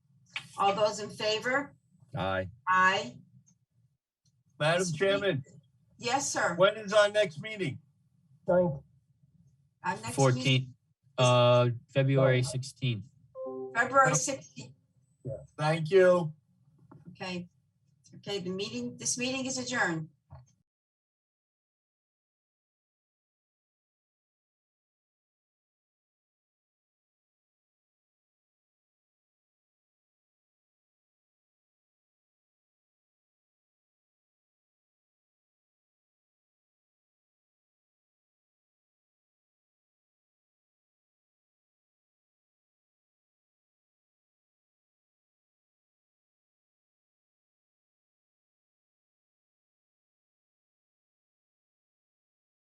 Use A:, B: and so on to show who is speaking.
A: All those in favor?
B: Aye.
A: Aye.
C: Madam Chairman,
A: Yes, sir.
C: when is our next meeting?
A: Our next meeting,
D: Fourteenth, uh, February sixteenth.
A: February sixteenth.
C: Thank you.
A: Okay. Okay, the meeting, this meeting is adjourned.